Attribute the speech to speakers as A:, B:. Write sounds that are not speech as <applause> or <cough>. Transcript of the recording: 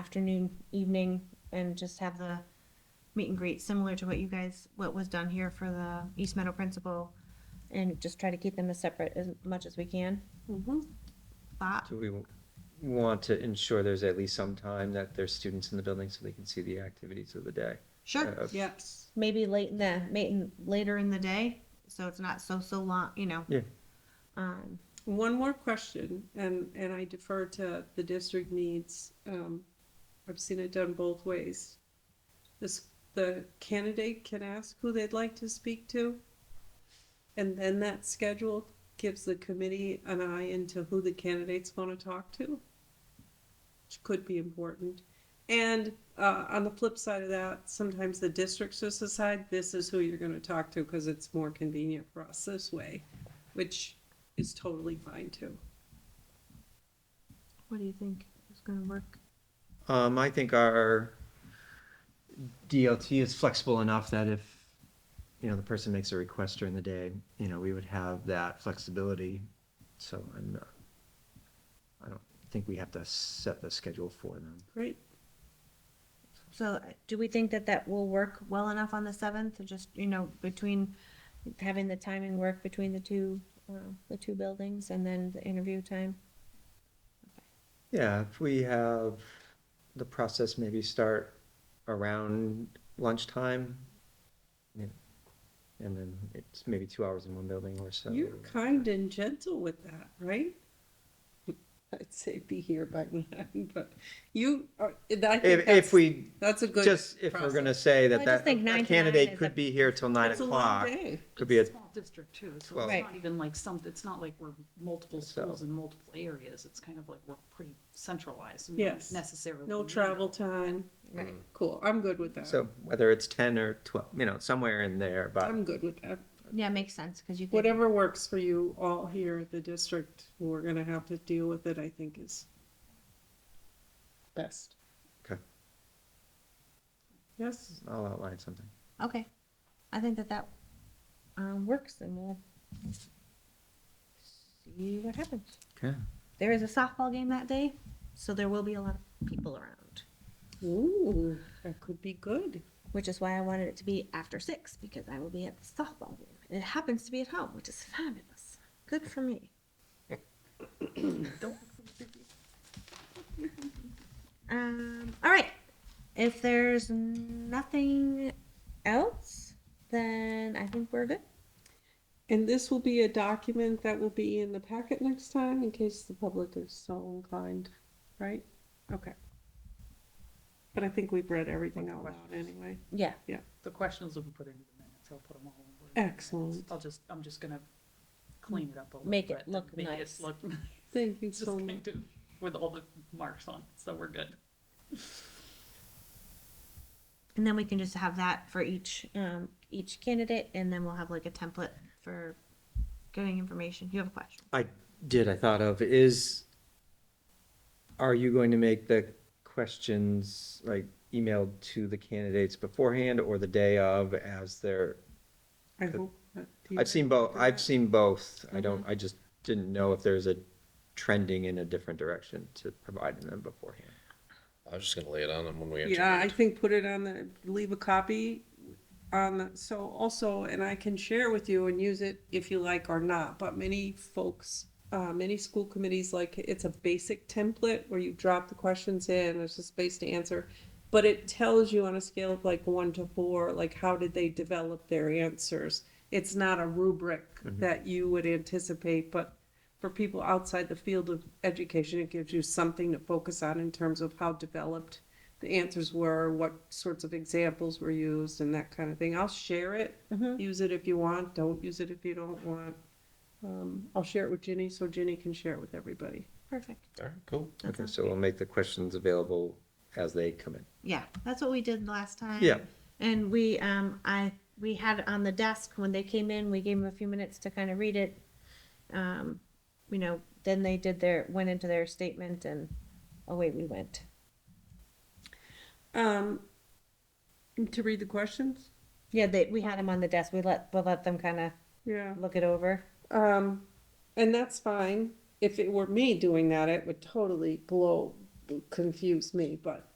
A: afternoon, evening, and just have the meet and greet similar to what you guys, what was done here for the East Meadow principal. And just try to keep them as separate as much as we can. Thought,
B: Do we w- want to ensure there's at least some time that there's students in the building so they can see the activities of the day?
C: Sure,
B: Uh,
C: yes.
A: maybe late in the, maybe later in the day, so it's not so, so long, you know.
B: Yeah.
A: Um,
C: One more question, and, and I defer to the district needs. Um, I've seen it done both ways. This, the candidate can ask who they'd like to speak to. And then that schedule gives the committee an eye into who the candidates want to talk to, which could be important. And uh, on the flip side of that, sometimes the districts just decide this is who you're going to talk to because it's more convenient for us this way, which is totally fine too.
A: what do you think is gonna work?
B: Um, I think our DLT is flexible enough that if, you know, the person makes a request during the day, you know, we would have that flexibility. So I'm not, I don't think we have to set the schedule for them.
C: Great.
A: So uh, do we think that that will work well enough on the seventh, to just, you know, between having the timing work between the two, uh, the two buildings and then the interview time?
B: Yeah, if we have the process maybe start around lunchtime. yeah, And then it's maybe two hours in one building or so.
C: You're kind and gentle with that, right? I'd say be here by <laughs> nine, but you, are- I think
B: If,
C: that's,
B: if we,
C: that's a good.
B: just if we're
C: process.
B: gonna say
A: I
B: that
A: just
B: that
A: think nine
B: that
A: to nine
B: candidate
A: is a-
B: could be here till nine
C: It's a long
B: o'clock,
C: day.
B: could be a,
D: small district too, so
B: Well-
D: it's
A: Right.
D: not even like some, it's not like we're multiple
B: So-
D: schools in multiple areas, it's kind of like we're pretty centralized. and we don't
C: Yes.
D: Necessarily.
C: No
D: need
C: travel time.
A: Right.
C: Cool, I'm good with that.
B: so uh, whether it's ten or twelve, you know, somewhere in there, but
C: I'm good with that.
A: Yeah, makes sense, cause you could.
C: Whatever works for you all here at the district, we're gonna have to deal with it, I think is best.
B: Okay.
C: Yes,
B: I'll outline something.
A: Okay, I think that that, um, works and we'll see what happens.
B: Okay.
A: There is a softball game that day, so there will be a lot of people around,
C: ooh, that could be good.
A: which is why I wanted it to be after six, because I will be at the softball game. And it happens to be at home, which is fabulous. Good for me. <laughs>
D: Don't-
A: Um, all right. If there's nothing else, then I think we're good.
C: And this will be a document that will be in the packet next time in case the public is so inclined, right? Okay. But I think we've read everything out loud anyway.
A: Yeah.
D: The questions will be put into the minutes, I'll put them all over.
C: Excellent.
D: I'll just, I'm just gonna clean it up a little bit.
A: Make it
D: and
A: look
D: make it
A: nice.
D: look- <laughs>
C: Thank you
D: Just
C: so much.
D: kind of with all the marks on, it, so we're good.
A: And then we can just have that for each um, each candidate, and then we'll have like a template for getting information. You have a question?
B: I did, I thought of, is, are you going to make the questions like emailed to the candidates beforehand or the day of as they're,
C: I hope that you-
B: I've seen both, I've seen both. I don't, I just didn't know if there's a trending in a different direction to providing them beforehand.
E: I was just gonna lay it on them when we
C: Yeah, I
E: interviewed.
C: think put it on the, leave a copy on, the so also, and I can share with you and use it if you like or not, but many folks, uh, many school committees, like, it's a basic template where you drop the questions in, there's a space to answer. But it tells you on a scale of like one to four, like, how did they develop their answers? It's not a rubric that you would anticipate, but for people outside the field of education, it gives you something to focus on in terms of how developed the answers were, what sorts of examples were used, and that kind of thing. I'll share it. Use it if you want. Don't use it if you don't want. Um, I'll share it with Ginny so Ginny can share it with everybody.
A: Perfect.
E: All right, cool.
A: That
B: Okay,
A: sounds
B: so we'll make the questions available as they come in.
A: Yeah, that's what we did last time.
B: Yeah.
A: And we, um, I, we had it on the desk when they came in, we gave them a few minutes to kind of read it. Um, you know, then they did their, went into their statement and away we went.
C: Um, to read the questions?
A: Yeah, they, we had them on the desk, we let, we let them kind of
C: Yeah.
A: look it over.
C: Um, and that's fine. If it were me doing that, it would totally blow, confuse me, but